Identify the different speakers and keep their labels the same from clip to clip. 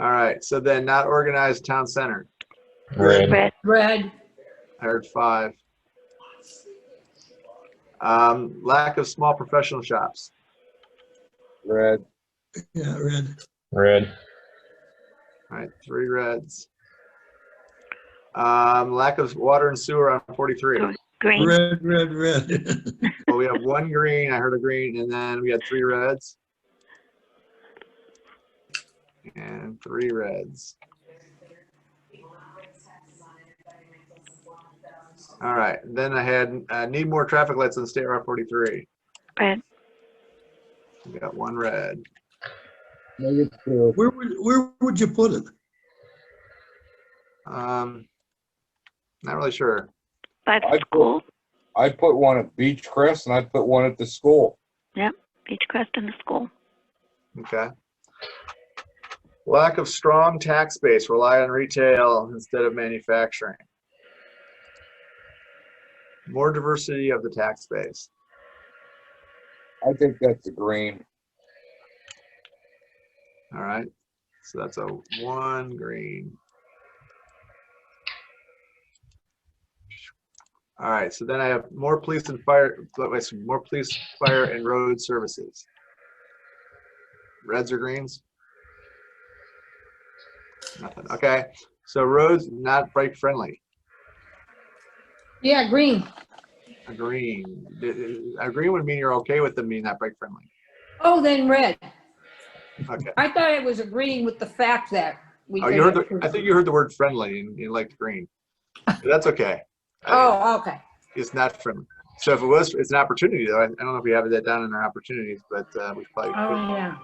Speaker 1: All right, so then not organized town center.
Speaker 2: Red,
Speaker 3: Red,
Speaker 4: Red,
Speaker 1: I heard five. Um, lack of small professional shops.
Speaker 5: Red,
Speaker 6: Yeah, red.
Speaker 2: red,
Speaker 1: All right, three reds. Um, lack of water and sewer on forty-three.
Speaker 3: green,
Speaker 6: Red, red, red.
Speaker 1: Well, we have one green, I heard a green, and then we had three reds. And three reds. All right, then I had, uh, need more traffic lights on State Route forty-three.
Speaker 3: red,
Speaker 1: We got one red.
Speaker 5: negative two,
Speaker 6: Where would, where would you put it?
Speaker 1: Um, not really sure.
Speaker 3: by the
Speaker 5: I'd
Speaker 3: school,
Speaker 5: I put one at Beach Crest and I put one at the school.
Speaker 3: Beechcrest and the school.
Speaker 1: Okay. Lack of strong tax base, rely on retail instead of manufacturing. More diversity of the tax base.
Speaker 5: I think that's a green.
Speaker 1: All right, so that's a one green. All right, so then I have more police and fire, but wait, so more police, fire and road services. Reds or greens? Nothing, okay. So roads, not bike friendly,
Speaker 4: yeah, green.
Speaker 1: a green. D- A green would mean you're okay with them being not bike friendly.
Speaker 4: Oh, then red.
Speaker 1: Okay.
Speaker 4: I thought I was agreeing with the fact that we.
Speaker 1: Oh, you heard, the- I think you heard the word friendly and you liked green. That's okay. I-
Speaker 4: Oh, okay.
Speaker 1: It's not from, so if it was, it's an opportunity though. I I don't know if we have that down in our opportunities, but uh, we probably could.
Speaker 4: Oh, yeah.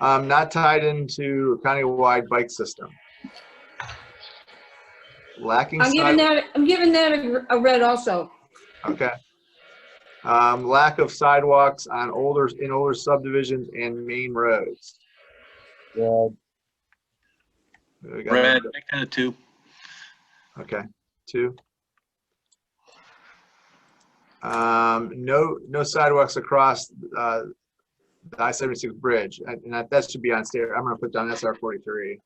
Speaker 1: Um, not tied into county-wide bike system. Lacking
Speaker 4: I'm giving
Speaker 1: sidewalk,
Speaker 4: that, I'm giving that a, a red also.
Speaker 1: okay. Um, lack of sidewalks on older, in older subdivisions and main roads.
Speaker 5: Red,
Speaker 1: We got-
Speaker 7: Red, make that a two.
Speaker 1: Okay, two. Um, no, no sidewalks across, uh, the I seventy-six bridge, and and that, that should be on state, I'm gonna put down SR forty-three.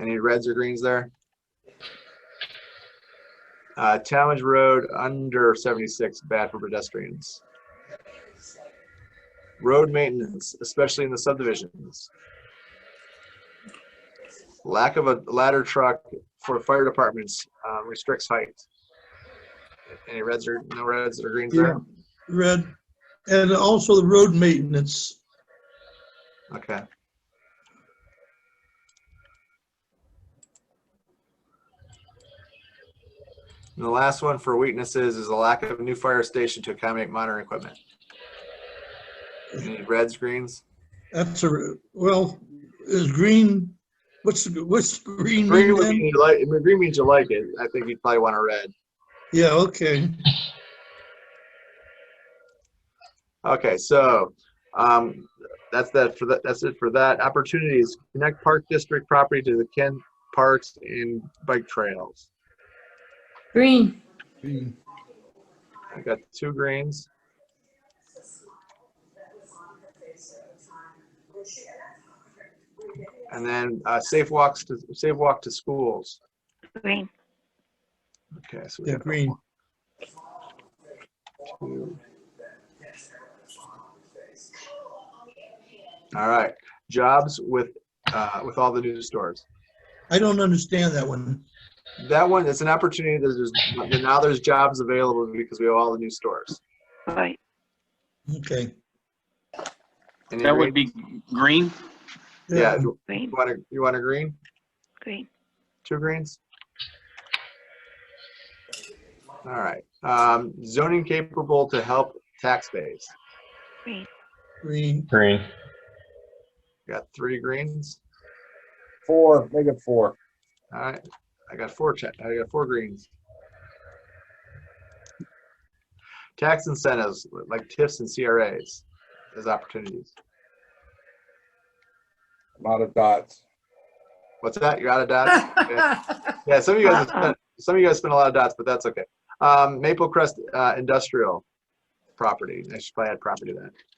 Speaker 1: Any reds or greens there? Uh, Talmadge Road under seventy-six, bad for pedestrians. Road maintenance, especially in the subdivisions lack of a ladder truck for fire departments um, restricts height. Any reds or, no reds or greens there?
Speaker 6: Red. And also the road maintenance.
Speaker 1: Okay. And the last one for weaknesses is a lack of a new fire station to accommodate modern equipment. Any reds, greens?
Speaker 6: That's a, well, is green, what's, what's green?
Speaker 1: Green
Speaker 6: mean
Speaker 1: would
Speaker 6: then?
Speaker 1: mean you like, green means you like it. I think you'd probably want a red.
Speaker 6: Yeah, okay.
Speaker 1: Okay, so, um, that's that for that, that's it for that. Opportunities, connect Park District property to the Kent Parks and Bike Trails.
Speaker 4: Green,
Speaker 6: Green.
Speaker 1: I got two greens. And then, uh, safe walks to, safe walk to schools.
Speaker 3: Green,
Speaker 1: Okay, so we
Speaker 6: Yeah,
Speaker 1: got
Speaker 6: green.
Speaker 1: two. All right, jobs with, uh, with all the new stores.
Speaker 6: I don't understand that one.
Speaker 1: That one, it's an opportunity. There's, there's now there's jobs available because we have all the new stores.
Speaker 3: right,
Speaker 6: Okay.
Speaker 1: And
Speaker 7: That
Speaker 1: you
Speaker 7: would
Speaker 1: read-
Speaker 7: be green.
Speaker 1: Yeah, you
Speaker 3: green,
Speaker 1: want a, you want a green,
Speaker 3: green,
Speaker 1: two greens? All right, um, zoning capable to help tax base.
Speaker 3: green,
Speaker 6: Green.
Speaker 2: green,
Speaker 1: Got three greens.
Speaker 5: four, make it four.
Speaker 1: All right, I got four, cha- I got four greens. Tax incentives like TIFs and CRAs as opportunities.
Speaker 5: I'm out of dots.
Speaker 1: What's that? You're out of dodge? Okay. Yeah, some of you guys have
Speaker 3: Uh-uh.
Speaker 1: spent, some of you guys spent a lot of dots, but that's okay. Um, Maple Crest uh, Industrial Property. I should probably add property to that.